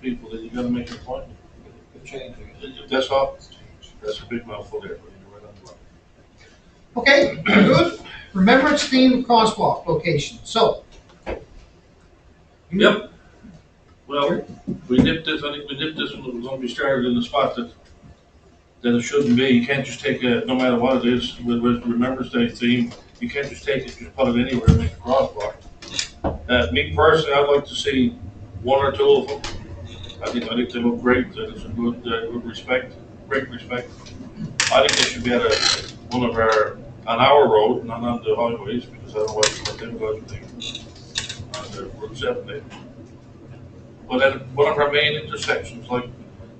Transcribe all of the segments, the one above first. people that you gotta make an appointment. Good change, I guess. If that's all, that's a big mouthful there, but you're right on the mark. Okay, good. Remembrance theme crosswalk location, so. Yep. Well, we nipped this, I think we nipped this one, it was gonna be started in the spot that, that it shouldn't be. You can't just take a, no matter what it is, with, with Remembrance Day theme, you can't just take it, just put it anywhere, make a crosswalk. Uh, me personally, I'd like to see one or two of them. I think, I think they look great, that is a good, uh, good respect, great respect. I think they should be at a, one of our, on our road, not on the highways, because otherwise, what they're going to do on the Route seven there. But at one of our main intersections, like,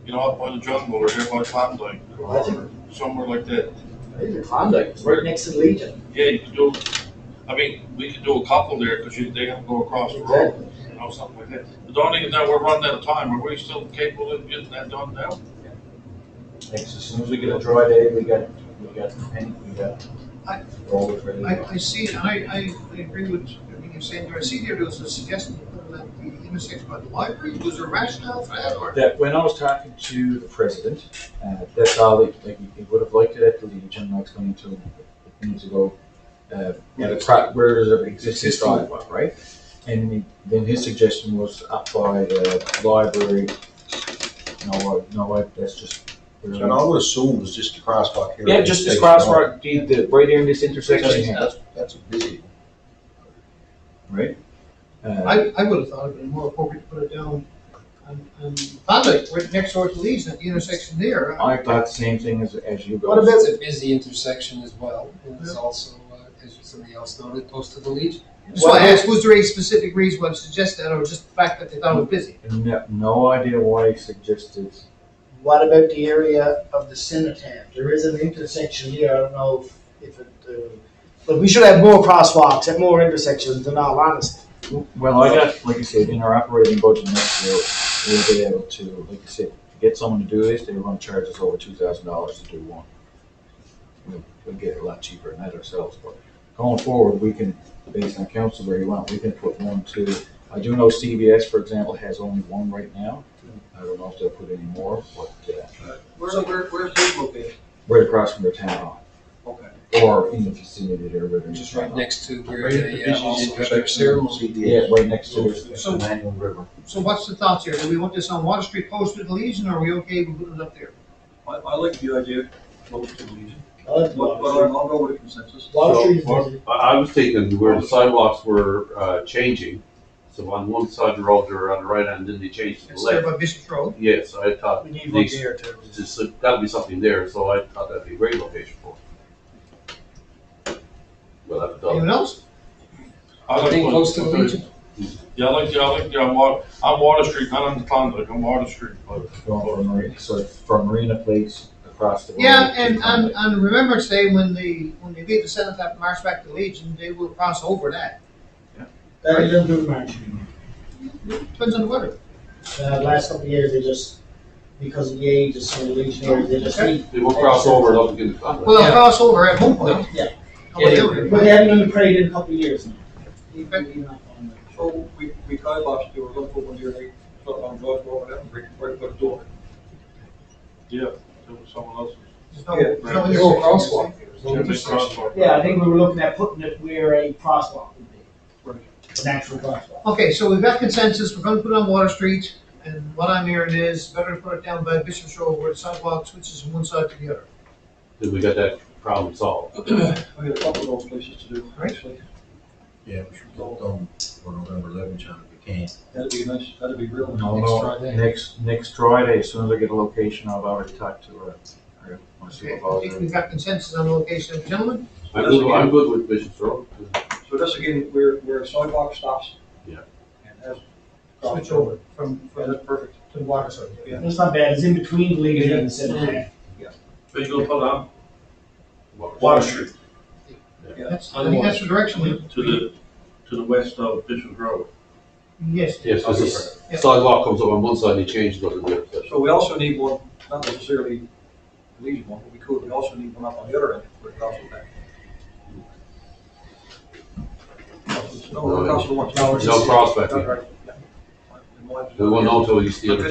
you know, up by the jungle or here by Klondike or somewhere like that, I think the Klondike is right next to the Legion. yeah, you could do, I mean, we could do a couple there because they have to go across the road, you know, something like that. But don't even know we're running out of time. Are we still capable of getting that done now? Thanks, as soon as we get a dry day, we got, we got, paint, we got I- rollers ready. I, I see, and I, I, I agree with everything you're saying there. I see there was a suggestion to put it at the intersection by the library. Was there rationale for that or? That, when I was talking to the president, uh, that's how they, like, he would have liked it at the Legion, I explained to him, it needs to go, uh, at a pro- where there's an existing sidewalk, right? And he- then his suggestion was up by the library, no, I- no, I- that's just. And I would assume it's just a crosswalk here. Yeah, just this crosswalk, the, the, right there in this intersection here, That's, that's a busy. right? Uh, I, I would have thought it'd been more appropriate to put it down on, on Klondike, right next door to Lee's at the intersection there. Uh, I thought the same thing as, as you guys. What about it's a busy intersection as well, and it's also, uh, as somebody else noted, close to the Legion. Just want to ask, was there any specific reason why it suggested that or just the fact that they thought it was busy? No, no idea why he suggested. What about the area of the cenotaph? There is an intersection here, I don't know if- if it, uh, but we should have more crosswalks at more intersections, in all honesty. Well, I got, like I said, in our operating budget next year, we'll be able to, like I said, to get someone to do this, they were gonna charge us over two thousand dollars to do one. We'll, we'll get it a lot cheaper than that ourselves, but going forward, we can, based on council where you want, we can put one, two. I do know CVS, for example, has only one right now. I don't know if they'll put any more, but, uh, Where, where, where's this located? right across from their town hall. Okay. Or in the vicinity there, but. Just right next to where they uh, also have their ceremony. Yeah, right next to it. So- Manual River. So what's the thoughts here? Do we want this on Water Street close to the Legion or are we okay with putting it up there? I, I like the idea, close to the Legion, I like but, but I'll I'll go with consensus. Water So, Street is or- busy. I, I was thinking where the sidewalks were, uh, changing, so on one side of the road or on the right hand, then they changed to the It's there left. by Bishop's Road. Yes, I thought, We need one these- there too. it's just, uh, gotta be something there, so I thought that'd be a great location for it. Well, I've done. Anyone else? I'd like I think to- close to the Legion. Yeah, I like, the- I like, the- I'm Water, I'm Water Street, not on the Klondike, I'm Water Street. but- Going from Marina, so it's from Marina Place across the. road Yeah, to and um, on, Conway. on Remembrance Day, when the, when they beat the cenotaph and march back to Legion, they will cross over that. That is a good match. Depends on the weather. Uh, last couple of years, they just, because of the age, it's so legionary, they just need. They won't cross over, they'll get the contract. Well, they'll cross over at one point. Yeah. How about the other? But they haven't done the parade in a couple of years now. In fact, Maybe not on that. So we, we kind of lost, you were looking for one year, like, so on George Road, and right, right by the door. Yeah, there was someone else's. there's no- Yeah. there's no There's no intersection. crosswalk. Should be crosswalk. Yeah, I think we were looking at putting it where a crosswalk would be. An actual crosswalk. Okay, so we've got consensus, we're gonna put it on Water Street, and what I'm hearing is, better to put it down by Bishop's Road where the sidewalk switches from one side to the other. Then we got that problem solved. I got a couple of those places to do, Right. actually, Yeah, we should go down for November eleventh, John, if we can. that'd be nice, that'd be real. nice. No, no, next, next Friday, as soon as I get a location, I'll already talk to her. I want to see Okay, if I think we've got consensus on the location, gentlemen? I'm good, I'm good with Bishop's Road. So that's again, where, where a sidewalk stops. Yeah. And that's. Switch over from, Yeah, from that's perfect. to Water Street. Yeah. It's not bad, it's in between the Legion and the Senate. But you gonna put it um, on Water Water. Street, That's, I think that's the direction we. to the, to the west of Bishop Road. Yes, Yes, because the sidewalk comes up on one side, they change, goes to the other side. So we also need one, not necessarily the Legion one, but we could, we also need one up on the other end, where it crosses that. No, it crosses the one. No crossback, yeah. Right, yeah. They won't know until you see it.